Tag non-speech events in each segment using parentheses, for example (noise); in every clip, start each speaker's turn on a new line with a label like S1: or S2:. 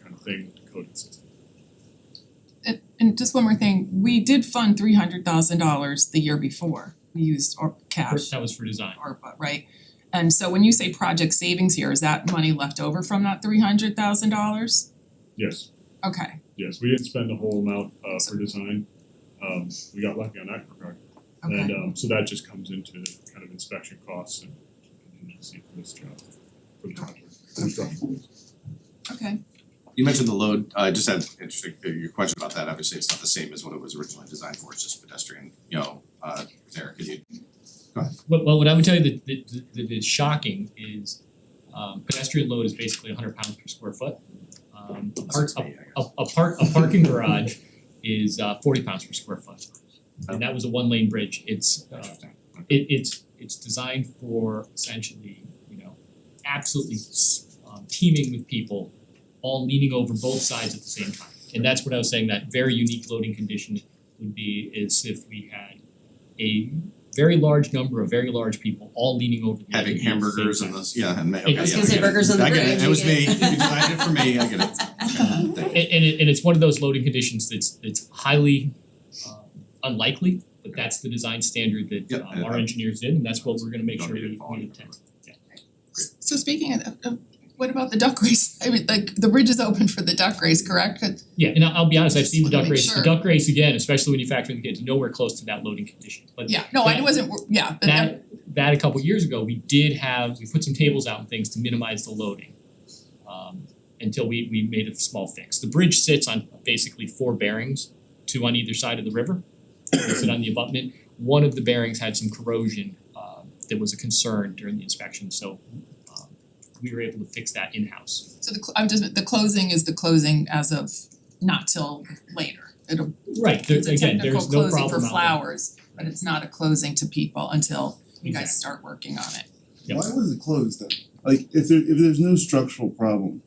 S1: thing with the coding system.
S2: And and just one more thing, we did fund three hundred thousand dollars the year before, we used our cash,
S1: That was for design.
S2: ARPA, right? And so when you say project savings here, is that money left over from that three hundred thousand dollars?
S1: Yes,
S2: Okay,
S1: yes, we didn't spend the whole amount uh
S2: So-
S1: for design. Um we got lucky on that regard. And
S2: okay,
S1: um so that just comes into kind of inspection costs and contingency for this job, for the project, construction.
S2: okay,
S3: You mentioned the load, I just had interesting, uh, your question about that, obviously it's not the same as what it was originally designed for, it's just pedestrian, you know, uh there, could you?
S4: Well, well, what I would tell you that that that is shocking is um pedestrian load is basically hundred pounds per square foot. Um a park,
S3: Six
S4: a
S3: feet, I guess.
S4: a a park, a parking garage is uh forty pounds per square foot.
S3: Oh.
S4: And that was a one lane bridge, it's uh
S3: Interesting,
S4: it it's it's designed for essentially, you know, absolutely s- um teeming with people all leaning over both sides at the same time. And that's what I was saying, that very unique loading condition would be is if we had a very large number of very large people all leaning over the other
S3: having
S4: at the same
S3: hamburgers
S4: time.
S3: and those, yeah, and ma- okay,
S4: It-
S3: yeah,
S4: I was
S5: gonna say
S3: I get it.
S5: burgers on the
S3: I get it,
S5: bridge,
S3: it was
S5: you
S3: me, you
S5: get-
S3: designed it for me, I get
S5: (laughs)
S3: it. Okay, thank you.
S4: And and it and it's one of those loading conditions that's that's highly um unlikely, but that's the design standard that
S3: Yep,
S4: um,
S3: I-
S4: our
S3: I-
S4: engineers did, and that's what we're gonna make
S3: Don't
S4: sure
S3: need it
S4: we
S3: falling
S4: we
S3: over.
S4: attend.
S2: so speaking of of what about the duck race? (laughs) I mean, like the bridge is open for the duck race, correct? 'Cause-
S4: Yeah, and I'll I'll be honest, I've
S2: Just
S4: seen the
S2: wanna
S4: duck
S2: make
S4: race, the
S2: sure.
S4: duck race again, especially when you factor in the kids, nowhere close to that loading condition, but
S2: yeah, no, I
S4: That-
S2: wasn't, wor- yeah, but that-
S4: that that a couple years ago, we did have, we put some tables out and things to minimize the loading. Um until we we made a small fix. The bridge sits on basically four bearings, two on either side of the river. They sit on the abutment. One of the bearings had some corrosion uh that was a concern during the inspection, so um we were able to fix that in-house.
S2: so the cl- I'm just, the closing is the closing as of not till later. It'll,
S4: Right, there
S2: it's a
S4: again,
S2: technical
S4: there's no problem
S2: closing for
S4: out there.
S2: flowers, but it's not a closing to people until you
S4: Exactly.
S2: guys start working on it.
S4: Yep.
S6: Why was it closed then? Like, if there, if there's no structural problem,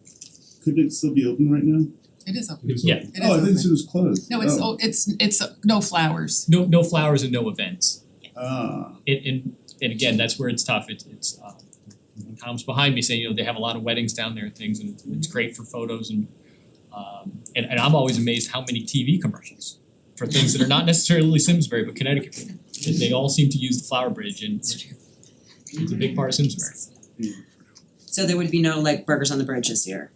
S6: couldn't it still be open right now?
S2: It is open,
S4: Yeah,
S2: it is
S6: Oh, I
S2: open.
S6: didn't see it was closed.
S2: No, it's,
S6: Oh.
S2: oh, it's, it's, uh, no (laughs) flowers.
S4: No no flowers and no events.
S6: Ah,
S4: and and and again, that's where it's tough, it's it's uh Tom's behind me saying, you know, they have a lot of weddings down there and things and it's it's great for photos and um and and I'm always amazed how many TV commercials for things that are not necessarily Simsbury but Connecticut. They they all seem to use the Flower Bridge and it's a big part of Simsbury.
S5: So there would be no like burgers on the bridge this (laughs) year.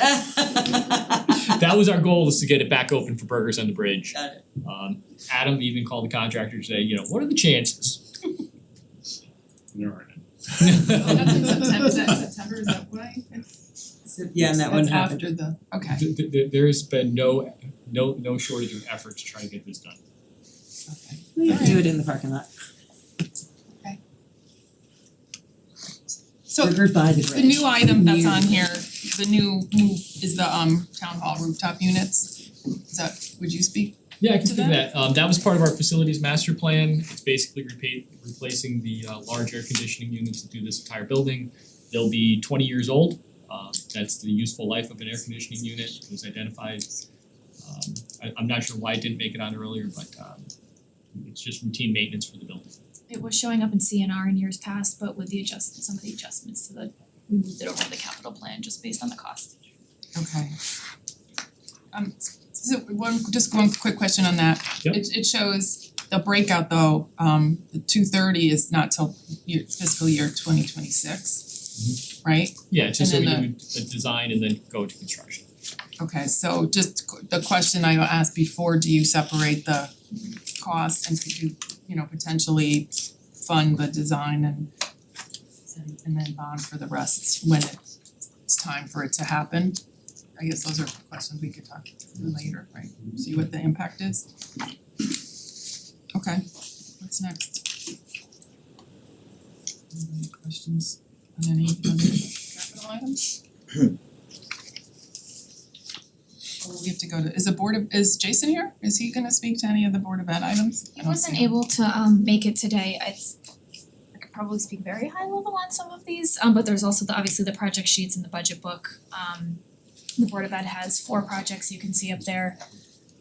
S4: That was our goal is to get it back open for Burgers on the Bridge.
S5: Got it.
S4: Um Adam even called the contractor today, you know, what are the chances?
S1: There aren't any.
S2: Oh,
S4: (laughs)
S2: That's in September, is that September, is that why?
S5: Yeah, and that one happened.
S2: after the, okay,
S4: Th- th- th- there's been no no no shortage of effort to try to get this done.
S2: okay.
S5: Do it in the parking lot.
S2: So
S5: Burger by the bridge.
S2: the new item that's on here, the new, new, is the um town hall rooftop units. Is that, would you speak?
S4: Yeah, I can
S2: to
S4: do
S2: that?
S4: that. Um that was part of our facilities master plan. It's basically repa- replacing the uh large air conditioning units that do this entire building. They'll be twenty years old. Um that's the useful life of an air conditioning unit. It was identified. Um I I'm not sure why it didn't make it on earlier, but um it's just routine maintenance for the building.
S7: it was showing up in CNR in years past, but with the adjust, some of the adjustments to the, we moved it over to the capital plan just based on the cost.
S2: Okay. Um so one, just one quick question on that.
S4: Yep.
S2: It it shows the breakout though, um the two thirty is not till year fiscal year twenty twenty six. Right?
S4: Yeah, it's just so
S2: And
S4: we do
S2: then
S4: a design and then go to construction.
S2: Okay, so just qu- the question I asked before, do you separate the cost and could you, you know, potentially fund the design and and- and then bond for the rest when it's time for it to happen? I guess those are questions we could talk through later, right? See what the impact is? Okay, what's next? Any questions on any other capital items? Or we have to go to, is the Board of, is Jason here? Is he gonna speak to any of the Board of Ed items? I
S7: He
S2: don't see
S7: wasn't
S2: him.
S7: able to um make it today, I I could probably speak very high level on some of these, um but there's also the obviously the project sheets and the budget book. Um the Board of Ed has four projects you can see up there.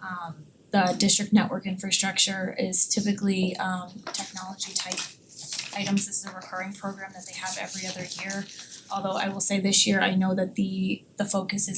S7: Um the district network infrastructure is typically um technology type items, this is a recurring program that they have every other year. Although I will say this year, I know that the the focus is